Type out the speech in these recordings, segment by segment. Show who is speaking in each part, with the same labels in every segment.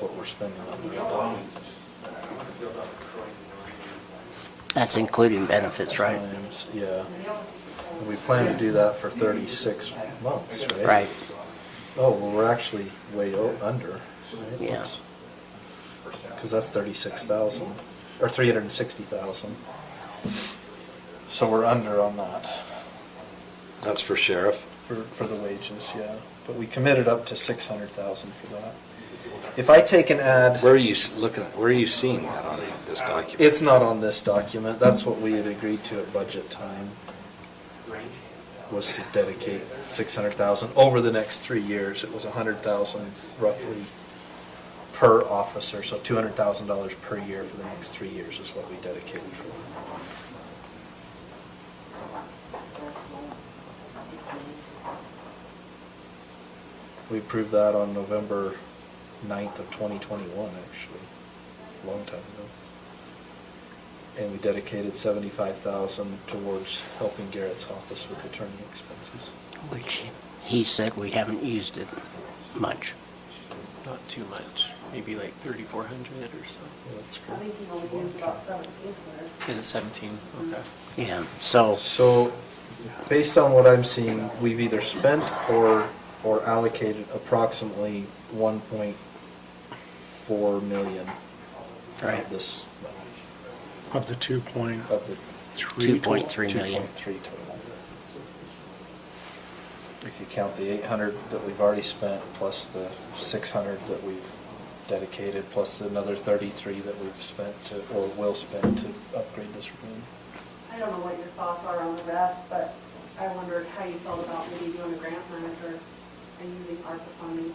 Speaker 1: what we're spending on the
Speaker 2: That's including benefits, right?
Speaker 1: times, yeah. And we plan to do that for thirty-six months, right?
Speaker 2: Right,
Speaker 1: Oh, well, we're actually way o- under. right?
Speaker 2: Yeah.
Speaker 1: Oops. Cause that's thirty-six thousand, or three hundred and sixty thousand. So we're under on that
Speaker 3: That's for sheriff.
Speaker 1: for, for the wages, yeah. But we committed up to six hundred thousand for that. If I take an ad.
Speaker 3: Where are you s- looking, at? where are you seeing that on this document?
Speaker 1: It's not on this document, that's what we had agreed to at budget time, was to dedicate six hundred thousand, over the next three years, it was a hundred thousand roughly per officer, so two hundred thousand dollars per year for the next three years is what we dedicated for. We approved that on November ninth of twenty twenty-one, actually, a long time ago and we dedicated seventy-five thousand towards helping Garrett's office with attorney expenses.
Speaker 2: which he said we haven't used it much.
Speaker 4: Not too much, maybe like thirty-four hundred or so.
Speaker 1: Well, that's
Speaker 5: I think
Speaker 1: great.
Speaker 5: he only used about seventeen hundred.
Speaker 4: Is it seventeen? Okay.
Speaker 2: Yeah, so,
Speaker 1: So, based on what I'm seeing, we've either spent or, or allocated approximately one point four million
Speaker 2: Right.
Speaker 1: of this, money,
Speaker 6: Of the two point
Speaker 1: of the
Speaker 6: three.
Speaker 2: two point three million.
Speaker 1: Two point three total. If you count the eight hundred that we've already spent, plus the six hundred that we've dedicated, plus another thirty-three that we've spent to, or will spend to upgrade this room.
Speaker 5: I don't know what your thoughts are on the rest, but I wondered how you felt about maybe doing a grant manager and using ARPA funding.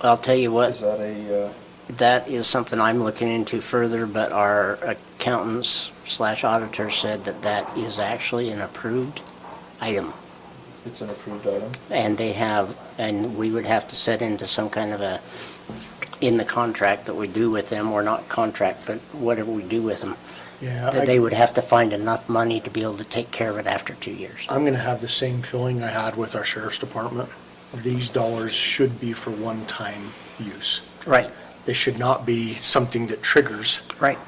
Speaker 2: I'll tell you
Speaker 1: Is
Speaker 2: what,
Speaker 1: that a, uh,
Speaker 2: that is something I'm looking into further, but our accountants slash auditor said that that is actually an approved item.
Speaker 1: it's an approved item?
Speaker 2: And they have, and we would have to set into some kind of a, in the contract that we do with them, or not contract, but whatever we do with them,
Speaker 6: Yeah,
Speaker 2: that they
Speaker 6: I-
Speaker 2: would have to find enough money to be able to take care of it after two years.
Speaker 6: I'm going to have the same feeling I had with our sheriff's department. These dollars should be for one-time use.
Speaker 2: Right,
Speaker 6: They should not be something that triggers
Speaker 2: right.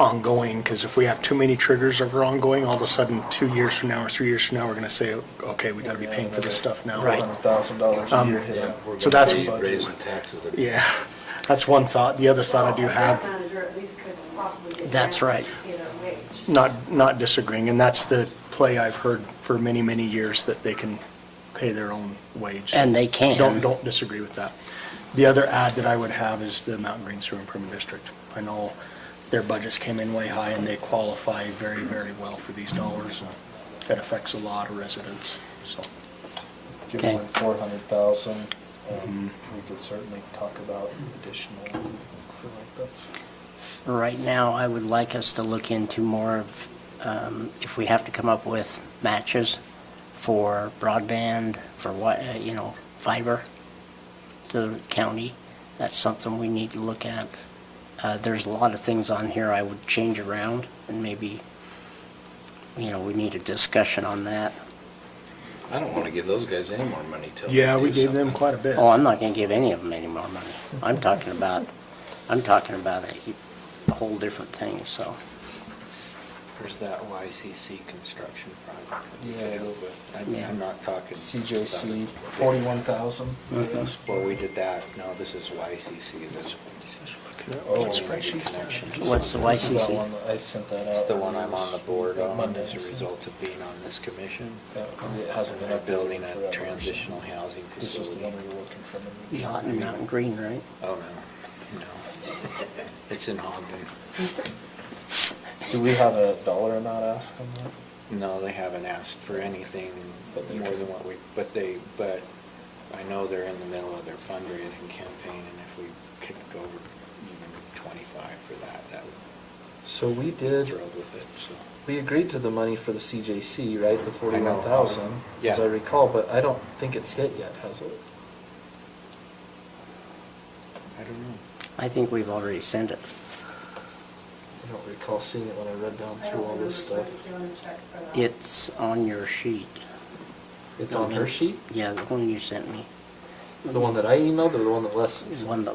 Speaker 6: ongoing, because if we have too many triggers of ongoing, all of a sudden, two years from now or three years from now, we're going to say, okay, we got to be paying for this stuff now.
Speaker 2: Right.
Speaker 1: Hundred thousand dollars a
Speaker 6: Um,
Speaker 1: year hit.
Speaker 6: So that's-
Speaker 3: Raising taxes. and-
Speaker 6: Yeah, that's one thought. The other thought I do
Speaker 5: A
Speaker 6: have,
Speaker 5: grant manager at least could possibly get.
Speaker 2: That's right.
Speaker 5: grants to Pay their wage.
Speaker 6: not, not disagreeing, and that's the play I've heard for many, many years, that they can pay their own wage.
Speaker 2: And they can.
Speaker 6: Don't, don't disagree with that. The other ad that I would have is the Mountain Green Sewer Improvement District. I know their budgets came in way high, and they qualify very, very well for these dollars. and It affects a lot of residents, so.
Speaker 1: Give
Speaker 2: Okay.
Speaker 1: them four hundred thousand, um,
Speaker 6: Mm-hmm.
Speaker 1: we could certainly talk about additional for like that's.
Speaker 2: Right now, I would like us to look into more of, um, if we have to come up with matches for broadband, for what, uh, you know, fiber to the county, that's something we need to look at. Uh, There's a lot of things on here I would change around, and maybe, you know, we need a discussion on that.
Speaker 3: I don't want to give those guys any more money till. they
Speaker 6: Yeah, we
Speaker 3: do
Speaker 6: gave them
Speaker 3: something.
Speaker 6: quite a bit.
Speaker 2: Oh, I'm not gonna give any of them any more money. I'm talking about, I'm talking about a whole different thing, so.
Speaker 7: There's that YCC construction project that we
Speaker 1: Yeah.
Speaker 7: did with. I'm-
Speaker 2: Yeah.
Speaker 7: I'm not talking.
Speaker 1: CJC,
Speaker 7: about it.
Speaker 1: forty-one thousand.
Speaker 6: Uh,
Speaker 7: Well, we did that. No, this is YCC, this.
Speaker 1: Oh.
Speaker 7: It's a connection to
Speaker 2: What's the
Speaker 7: something.
Speaker 2: Y-
Speaker 1: This is that
Speaker 2: YCC.
Speaker 1: one that I sent that out.
Speaker 7: It's the one I'm on the board on
Speaker 1: Monday,
Speaker 7: as
Speaker 1: I
Speaker 7: a
Speaker 1: sent.
Speaker 7: result of being on this commission.
Speaker 1: Yeah, It hasn't been
Speaker 7: They're
Speaker 1: updated
Speaker 7: Building
Speaker 1: forever, so-
Speaker 7: a transitional housing
Speaker 1: This is the
Speaker 7: facility.
Speaker 1: one we were working from.
Speaker 2: The hot and mountain green, right?
Speaker 7: Oh, no, no. It's in Ogden.
Speaker 1: Do we have a dollar amount asked on that?
Speaker 7: No, they haven't asked for anything more
Speaker 1: But they
Speaker 7: than what we, but they, but I know they're in the middle of their fundraising campaign, and if we could go over even twenty-five for that, that would
Speaker 1: So we
Speaker 7: be
Speaker 1: did,
Speaker 7: thrilled with it, so.
Speaker 1: we agreed to the money for the CJC, right, the
Speaker 7: I know.
Speaker 1: forty-one thousand, as
Speaker 7: Yeah.
Speaker 1: I recall, but I don't think it's hit yet, has it?
Speaker 7: I don't know.
Speaker 2: I think we've already sent it.
Speaker 1: I don't recall seeing it when I read down
Speaker 5: I
Speaker 1: through
Speaker 5: don't
Speaker 1: all this
Speaker 5: remember
Speaker 1: stuff.
Speaker 5: if you wanna check for that.
Speaker 2: It's on your sheet.
Speaker 1: It's on her sheet?
Speaker 2: Yeah, the one you sent me,
Speaker 1: The one that I emailed or the one that Les
Speaker 2: the
Speaker 1: sent?
Speaker 2: one that